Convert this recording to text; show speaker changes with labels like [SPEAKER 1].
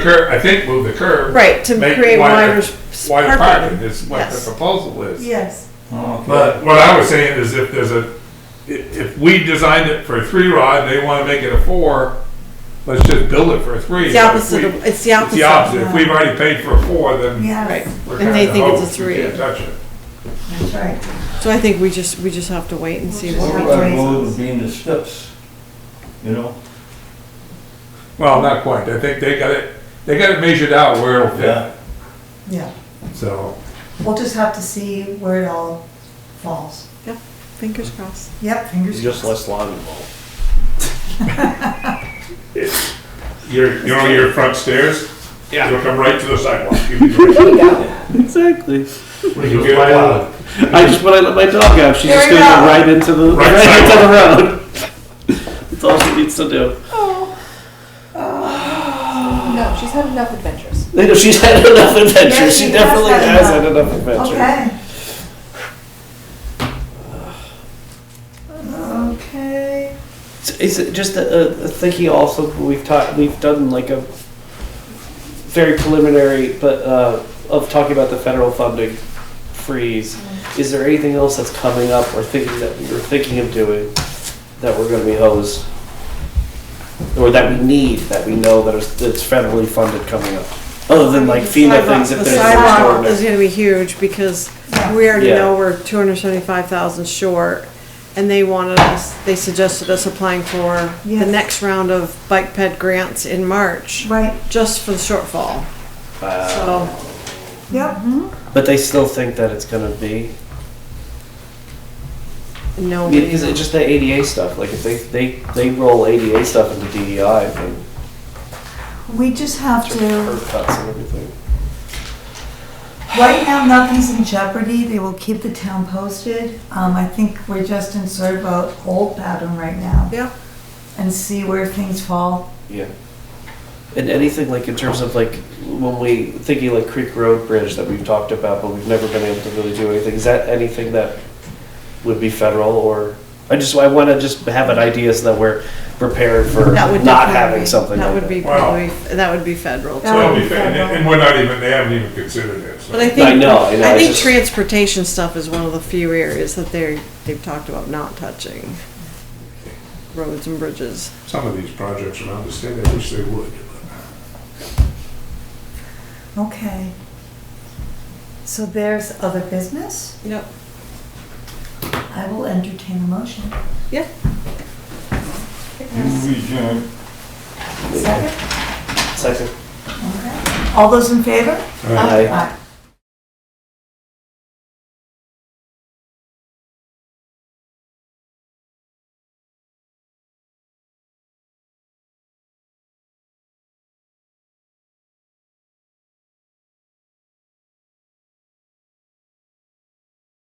[SPEAKER 1] cur, I think move the curb.
[SPEAKER 2] Right, to
[SPEAKER 1] make
[SPEAKER 2] create
[SPEAKER 1] wider-
[SPEAKER 2] wider s-
[SPEAKER 1] Wider
[SPEAKER 2] parking.
[SPEAKER 1] parking is what the
[SPEAKER 2] Yes.
[SPEAKER 1] proposal is.
[SPEAKER 3] Yes,
[SPEAKER 1] But what I was saying is if there's a, i- if we designed it for a three rod, they wanna make it a four, let's just build it for a three.
[SPEAKER 2] It's the opposite of, it's the
[SPEAKER 1] It's the
[SPEAKER 2] opposite.
[SPEAKER 1] opposite. If we've already paid for a four, then
[SPEAKER 2] Right,
[SPEAKER 3] yes,
[SPEAKER 1] we're
[SPEAKER 2] And they
[SPEAKER 1] kinda
[SPEAKER 2] think it's a
[SPEAKER 1] hosed. We
[SPEAKER 2] three.
[SPEAKER 1] can't touch it.
[SPEAKER 3] that's right.
[SPEAKER 2] so I think we just, we just have to wait and see
[SPEAKER 3] We'll
[SPEAKER 2] what
[SPEAKER 3] just
[SPEAKER 2] we
[SPEAKER 3] have
[SPEAKER 2] do.
[SPEAKER 3] to-
[SPEAKER 4] Override road would be in the steps, you know?
[SPEAKER 1] Well, not quite. I think they got it, they got it measured out where it'll fit,
[SPEAKER 4] Yeah,
[SPEAKER 3] Yeah,
[SPEAKER 1] so.
[SPEAKER 3] we'll just have to see where it all falls.
[SPEAKER 2] Fingers crossed.
[SPEAKER 3] Yep, fingers
[SPEAKER 5] Just
[SPEAKER 3] crossed.
[SPEAKER 5] less lawn involved.
[SPEAKER 1] You're, you're on your front stairs? Yeah. You'll come right to the sidewalk.
[SPEAKER 5] Exactly.
[SPEAKER 1] You get a lot.
[SPEAKER 5] I just when I let my dog out, she's
[SPEAKER 3] There
[SPEAKER 5] just
[SPEAKER 3] you
[SPEAKER 5] gonna go
[SPEAKER 3] go.
[SPEAKER 5] right into the
[SPEAKER 1] Right
[SPEAKER 5] right, into the road. That's all she needs to do.
[SPEAKER 3] Oh.
[SPEAKER 6] No, she's had enough adventures.
[SPEAKER 5] You know, she's had enough adventures.
[SPEAKER 3] Yes,
[SPEAKER 5] she,
[SPEAKER 3] she has
[SPEAKER 5] definitely
[SPEAKER 3] had
[SPEAKER 5] has
[SPEAKER 3] enough.
[SPEAKER 5] had enough adventures.
[SPEAKER 3] Okay. Okay,
[SPEAKER 5] So Is it just a, a thinking also we've taught we've done like a very preliminary but uh, of talking about the federal funding freeze.
[SPEAKER 2] Mm-hmm.
[SPEAKER 5] Is there anything else that's coming up or thinking that we were thinking of doing that we're going to be hosed or that we need that we know that is, that's federally funded coming up other than like FEMA things if
[SPEAKER 2] The
[SPEAKER 5] there's
[SPEAKER 2] sidewalk
[SPEAKER 5] an
[SPEAKER 2] is
[SPEAKER 5] extraordinary.
[SPEAKER 2] gonna be huge because
[SPEAKER 3] Yeah.
[SPEAKER 2] we already
[SPEAKER 5] Yeah.
[SPEAKER 2] know we're two hundred seventy-five thousand short. And they wanted us, they suggested us applying for the
[SPEAKER 3] Yes.
[SPEAKER 2] next round of bike ped grants in March,
[SPEAKER 3] right,
[SPEAKER 2] just for the shortfall,
[SPEAKER 5] Uh,
[SPEAKER 2] so.
[SPEAKER 3] yep,
[SPEAKER 5] but they still think that it's going to be.
[SPEAKER 2] No.
[SPEAKER 5] I mean, is it just the ADA stuff? Like if they they, they roll ADA stuff into E DEI, then
[SPEAKER 3] we just have to,
[SPEAKER 5] curb cuts and everything.
[SPEAKER 3] right now, nothing's in jeopardy, they will keep the town posted. Um, I think we're just in sort of a old pattern right now
[SPEAKER 2] Yeah,
[SPEAKER 3] and see where things fall.
[SPEAKER 5] Yeah. And anything like in terms of like when we thinking like Creek Road Bridge that we've talked about, but we've never been able to really do anything. Is that anything that would be federal or? I just I want to just have an idea so that we're prepared for
[SPEAKER 2] that would
[SPEAKER 5] not
[SPEAKER 2] definitely
[SPEAKER 5] having
[SPEAKER 2] be-
[SPEAKER 5] something.
[SPEAKER 2] That
[SPEAKER 5] like
[SPEAKER 2] would be
[SPEAKER 1] Wow.
[SPEAKER 2] probably, that would be federal.
[SPEAKER 3] That
[SPEAKER 1] Well,
[SPEAKER 3] would be
[SPEAKER 1] we- and,
[SPEAKER 3] fun.
[SPEAKER 1] and we're not even, they haven't even considered it, so.
[SPEAKER 2] But I think
[SPEAKER 5] I know, I know,
[SPEAKER 2] I
[SPEAKER 5] it's
[SPEAKER 2] think
[SPEAKER 5] just-
[SPEAKER 2] transportation stuff is one of the few areas that they're they've talked about not touching roads and bridges.
[SPEAKER 1] Some of these projects around the state, I wish they would.
[SPEAKER 3] Okay. So there's other business?
[SPEAKER 2] Yep.
[SPEAKER 3] I will entertain a motion.
[SPEAKER 2] Yeah.
[SPEAKER 3] Second?
[SPEAKER 5] Second.
[SPEAKER 3] Okay. All those in favor?
[SPEAKER 5] Aye.
[SPEAKER 3] Aye.